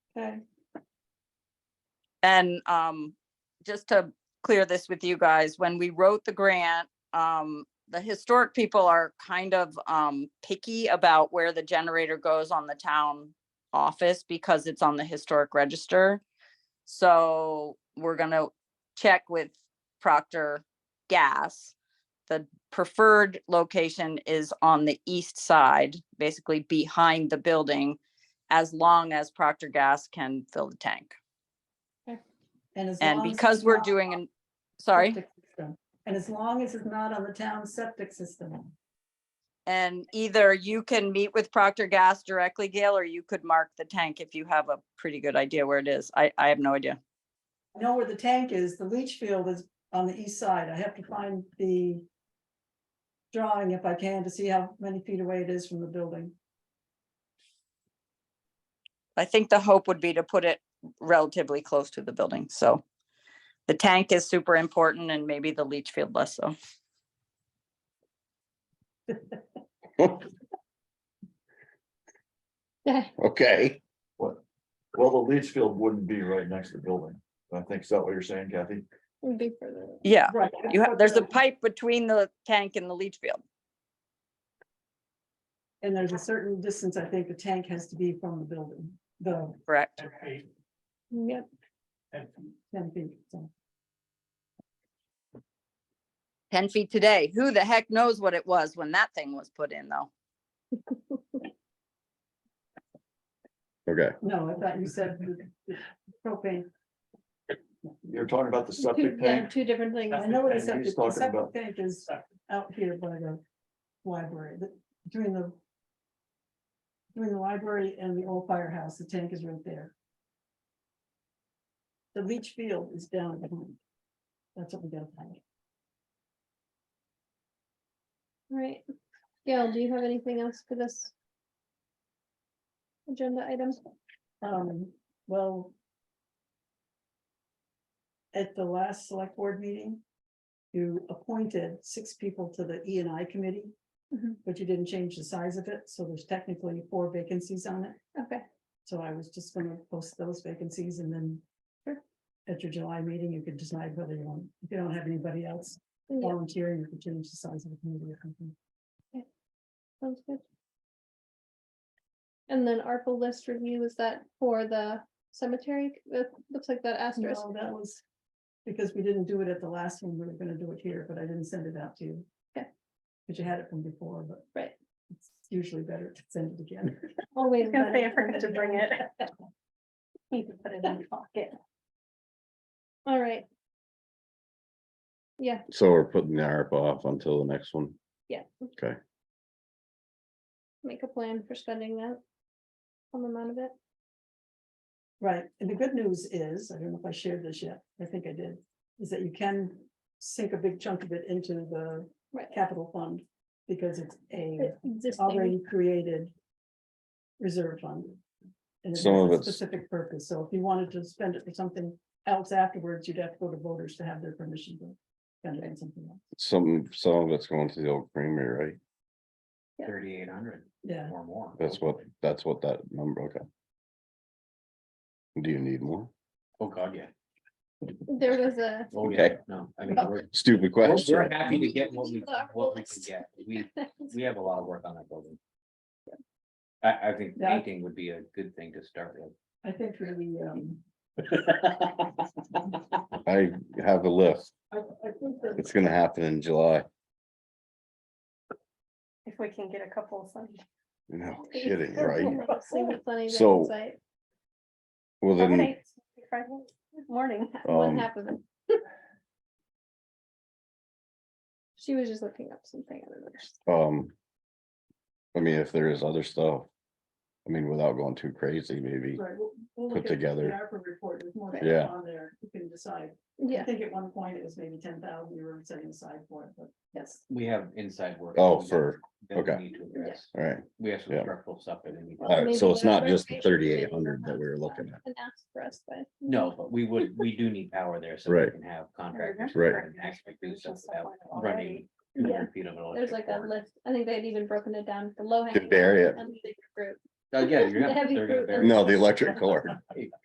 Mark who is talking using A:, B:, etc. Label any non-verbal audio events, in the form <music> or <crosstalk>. A: Okay.
B: And um, just to clear this with you guys, when we wrote the grant, um, the historic people are kind of um picky about where the generator goes on the town office because it's on the historic register. So we're gonna check with Proctor Gas. The preferred location is on the east side, basically behind the building, as long as Proctor Gas can fill the tank.
A: as
B: And
A: long as
B: because
A: it's
B: we're
A: not
B: doing,
A: on
B: an sorry,
A: septic system, And as long as it's not on the town septic system.
B: and either you can meet with Procter Gas directly, Gail, or you could mark the tank if you have a pretty good idea where it is. I, I have no idea.
A: I know where the tank is, the leach field is on the east side. I have to find the drawing if I can to see how many feet away it is from the building.
B: I think the hope would be to put it relatively close to the building, so. The tank is super important and maybe the leach field less so.
C: Okay,
D: What? Well, the leach field wouldn't be right next to the building. I think, is that what you're saying, Kathy?
E: Would be further.
B: Yeah,
A: Right.
B: you have, there's a pipe between the tank and the leach field.
A: And there's a certain distance, I think, the tank has to be from the building, the
B: Correct.
E: Yep.
A: ten feet. so.
B: Ten feet today. Who the heck knows what it was when that thing was put in, though?
C: okay,
A: No, I thought you said the- the propane.
D: You're talking about the
E: Two,
D: septic
E: yeah,
D: tank?
E: two different things.
A: I know what a septic,
D: Septic tank, he's
A: the
D: talking
A: septic
D: about.
A: tank is out here by the library, the- between the between the library and the old firehouse, the tank is right there. The leach field is down behind. That's what we gotta find.
E: Right. Gail, do you have anything else for this? Agenda item?
A: Um, well. At the last select board meeting, you appointed six people to the E and I committee.
E: Mhm.
A: But you didn't change the size of it, so there's technically four vacancies on it.
E: Okay,
A: So I was just gonna post those vacancies and then. At your July meeting, you could decide whether you want, if you don't have anybody else
E: yeah,
A: volunteering, you could change the size of the committee or something.
E: sounds good. And then ARPA list review, is that for the cemetery? It looks like that asterisk.
A: No, that was because we didn't do it at the last one, we were gonna do it here, but I didn't send it out to you.
E: Okay.
A: But you had it from before, but.
E: Right.
A: It's usually better to send it again.
E: Oh, wait. a minute.
A: to bring <laughs> it.
F: Need to put it in the pocket.
E: All right. Yeah,
C: so we're putting the ARPA off until the next one.
E: Yeah.
C: Okay,
E: make a plan for spending that. Some amount of it.
A: Right, and the good news is, I don't know if I shared this yet, I think I did, is that you can sink a big chunk of it into the
E: Right.
A: capital fund. Because it's a
E: Existing.
A: already created reserve fund. And it
C: Some
A: has
C: of
A: a
C: it's-
A: Specific purpose, so if you wanted to spend it for something else afterwards, you'd have to go to voters to have their permission to spend it on something else,
C: some, some of it's going to the old creamery, right?
G: thirty-eight hundred
A: yeah.
G: or more.
C: That's what, that's what that number, okay. Do you need more?
G: Oh, God, yeah.
E: There was a,
G: Oh, yeah.
C: Okay.
G: No, I mean,
A: Well-
G: we're,
C: Stupid
G: we're-
C: question.
G: we're happy to get what we,
E: Our
G: what we can
E: list.
G: get. We, we have a lot of work on that building. I, I think
A: Yeah.
G: painting would be a good thing to start
A: I think really, um,
G: with.
C: I have a list.
A: I, I think that
C: It's gonna happen in July.
F: If we can get a couple of some.
C: No
E: <laughs>
F: <laughs>
C: kidding, right?
E: Sunny day
C: So-
E: outside.
C: Well, then,
F: Friday, Friday Morning.
E: <laughs> What
C: um,
E: happened? She was just looking up something. I don't know.
C: um. I mean, if there is other stuff. I mean, without going too crazy, maybe.
A: Right, we'll- we'll look
C: put
A: at the
C: together.
A: ARPA report, there's more
E: Right.
A: things
C: Yeah.
A: on there, you can decide. I
E: Yeah,
A: think at one point it was maybe ten thousand you were setting aside for it, but yes,
G: We have inside work.
C: Oh,
G: that we
C: for-
G: that we
C: okay.
G: Need to address.
C: All right,
G: We have some
C: Yeah.
G: structural stuff that we need.
E: Well,
C: all right, so
E: maybe
C: it's
E: the
C: not just the
E: reservation committee
C: thirty-eight hundred that we were looking at.
E: and ask for us, but.
G: No, but we would, we do need power there so we
C: Right.
G: can have contractors.
C: Right.
G: and Actually do stuff without
F: Already.
G: running two hundred feet of an
E: There's
G: electric
E: like a
G: cord.
E: list. I think they'd even broken it down for low.
C: Good area.
E: And the group.
G: Again, Oh, you're
E: The
G: not,
E: heavy
G: they're gonna
E: fruit.
G: bury.
C: No, the electric cord.